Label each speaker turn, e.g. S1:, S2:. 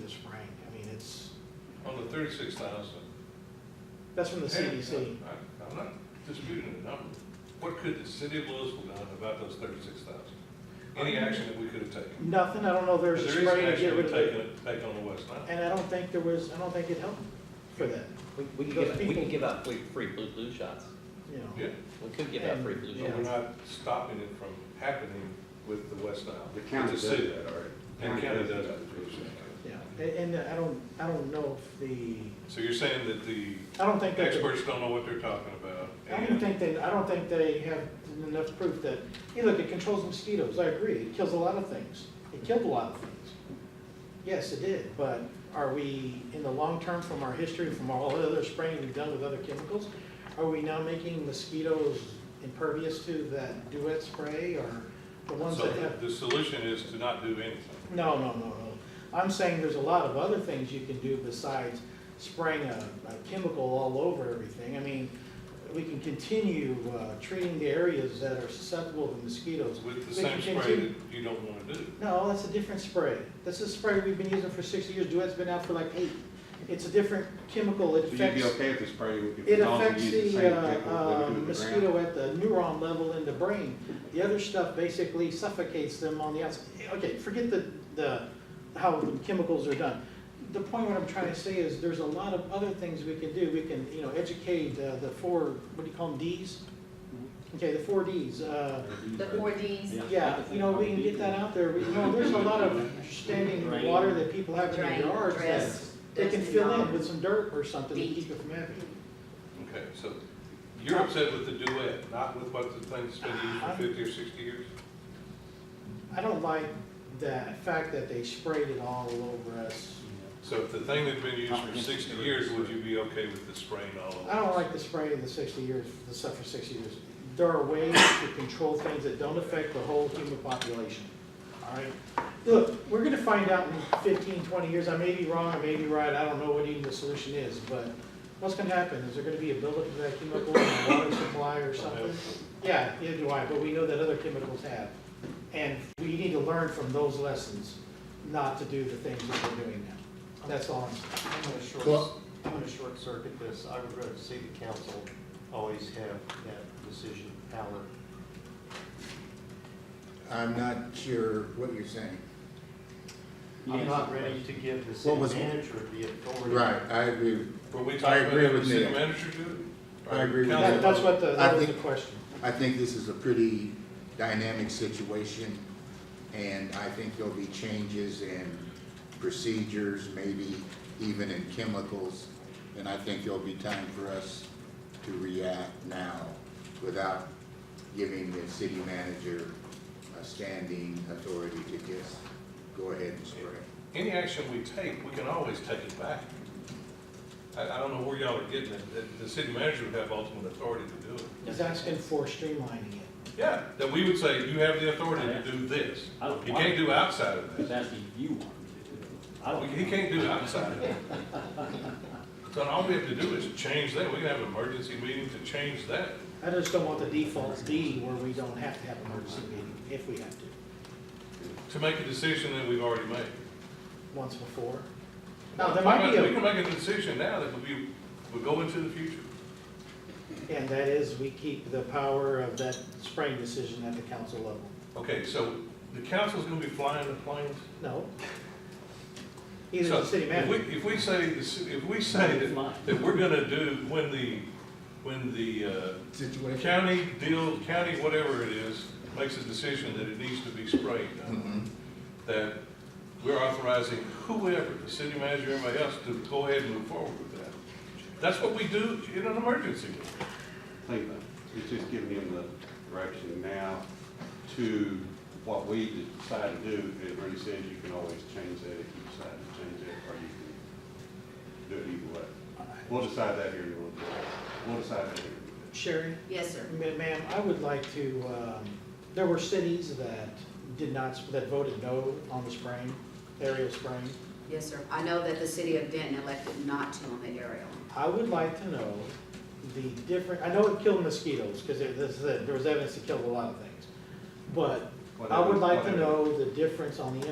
S1: this frank, I mean, it's,
S2: On the thirty-six thousand.
S1: that's from the CDC.
S2: I'm not disputing the number. What could the city of Louisville done about those thirty-six thousand? Any action that we could have taken?
S1: Nothing, I don't know, there's a
S2: There is
S1: spray to
S2: action
S1: get
S2: we
S1: rid of it.
S2: taken, taken on the west side.
S1: And I don't think there was, I don't think it helped for that,
S3: We, we can
S1: Those
S3: give, out- we
S1: people-
S3: can give out free, free blue, blue shots.
S1: you know.
S2: Yeah,
S3: We could give out free blue
S1: Yeah.
S2: but
S3: shots.
S2: we're not stopping it from happening with the west Nile.
S4: The county
S2: It's
S4: does
S2: a city.
S4: that already.
S2: And county does
S4: that.
S2: it.
S1: Yeah, A- and I don't, I don't know if the,
S2: So you're saying that the
S1: I don't think that, the-
S2: experts don't know what they're talking about?
S1: I don't
S2: and-
S1: think they, I don't think they have enough proof that, you look, it controls mosquitoes, I agree, it kills a lot of things. It killed a lot of things. Yes, it did, but are we, in the long term, from our history, from all the other spraying we've done with other chemicals, are we now making mosquitoes impervious to that duet spray or the ones
S2: So
S1: that have?
S2: the solution is to not do anything.
S1: No, no, no, no. I'm saying there's a lot of other things you can do besides spraying a, a chemical all over everything. I mean, we can continue, uh, treating the areas that are susceptible to mosquitoes.
S2: With the
S1: We
S2: same
S1: can
S2: spray that
S1: continue-
S2: you don't want to do.
S1: No, that's a different spray. That's a spray we've been using for sixty years. Duet's been out for like eight. It's a different chemical. It
S4: So you'd be
S1: affects,
S4: okay if the spray, if
S1: it
S4: the dogs
S1: affects
S4: use the same
S1: the,
S4: chemical
S1: uh,
S4: that
S1: uh,
S4: we do with the ground?
S1: mosquito at the neuron level in the brain. The other stuff basically suffocates them on the outside. Okay, forget the, the, how the chemicals are done. The point what I'm trying to say is there's a lot of other things we can do. We can, you know, educate uh, the four, what do you call them, Ds? Okay, the four Ds. uh,
S5: The four Ds,
S1: Yeah, you know, we can get that out there. We- You know, there's a lot of standing water that people have in their
S5: drain,
S1: yards that
S5: dress.
S1: they can
S5: dust,
S1: fill in
S5: and
S1: with some dirt or something to
S5: Feet.
S1: keep it from happening.
S2: Okay, so you're upset with the duet, not with what the thing's been used for fifty or sixty years?
S1: I don't like the fact that they sprayed it all over us.
S2: So if the thing had been used for sixty years, would you be okay with the spraying all over?
S1: I don't like the spray of the sixty years, the stuff for sixty years. There are ways to control things that don't affect the whole human population, all right? Look, we're gonna find out in 15, 20 years, I may be wrong, I may be right, I don't know what even the solution is, but what's gonna happen? Is there gonna be a buildup of that chemical in the water supply or something? Yeah, neither do I, but we know that other chemicals have. And we need to learn from those lessons, not to do the things that we're doing now. That's all I'm saying.
S6: I'm gonna short,
S7: Well-
S6: I'm gonna short circuit this. I would rather see the council always have that decision power.
S7: I'm not sure what you're saying.
S6: I'm not ready to give the
S7: What
S6: city
S7: was-
S6: manager the authority.
S7: Right, I agree.
S2: Were we
S7: I
S2: talking about
S7: agree
S2: having the
S7: with
S2: city
S7: Nick.
S2: manager do it?
S7: I agree with
S2: Council-
S1: That- That's what the, that
S7: I
S1: was the
S7: think-
S1: question.
S7: I think this is a pretty dynamic situation, and I think there'll be changes in procedures, maybe even in chemicals. And I think there'll be time for us to react now without giving the city manager a standing authority to just go ahead and spray.
S2: Any action we take, we can always take it back. I, I don't know where y'all are getting it, that the city manager would have ultimate authority to do it.
S1: He's asking for streamlining it.
S2: Yeah, that we would say, you have the authority to do this.
S8: I don't
S2: You
S8: want
S2: can't
S8: to.
S2: do outside of
S8: I
S2: that.
S8: was asking if you want to. I
S2: He
S8: don't.
S2: can't do it outside of that. So all we have to do is change that, we can have an emergency meeting to change that.
S1: I just don't want the default D where we don't have to have an emergency meeting if we have to,
S2: to make a decision that we've already made.
S1: once before. Now, there might be
S2: We can
S1: a,
S2: make a decision now that would be, would go into the future.
S1: and that is we keep the power of that spraying decision at the council level.
S2: Okay, so the council's gonna be flying the planes?
S1: No. Either the
S2: So,
S1: city
S2: if
S1: manager.
S2: we- If we say, the ci- if we say that, that we're gonna do, when the, when the, uh,
S7: Situation.
S2: county deal, county whatever it is, makes a decision that it needs to be sprayed, uh, that we're authorizing whoever, the city manager, everybody else, to go ahead and move forward with that. That's what we do in an emergency.
S4: Think about it. It's just giving him the direction now to what we decide to do. It really says you can always change that if you decide to change that, or you can do it either way. We'll decide that here in a little bit. We'll decide that here. in a little bit.
S1: Sherry?
S5: Yes, sir.
S1: Ma- Ma'am, I would like to, um, there were cities that did not, that voted no on the spraying, aerial spraying.
S5: Yes, sir. I know that the city of Denton elected not to on the aerial.
S1: I would like to know the different, I know it killed mosquitoes, because there, this is it, there was evidence it killed a lot of things. But I would like to
S4: Whatever.
S1: know the difference on the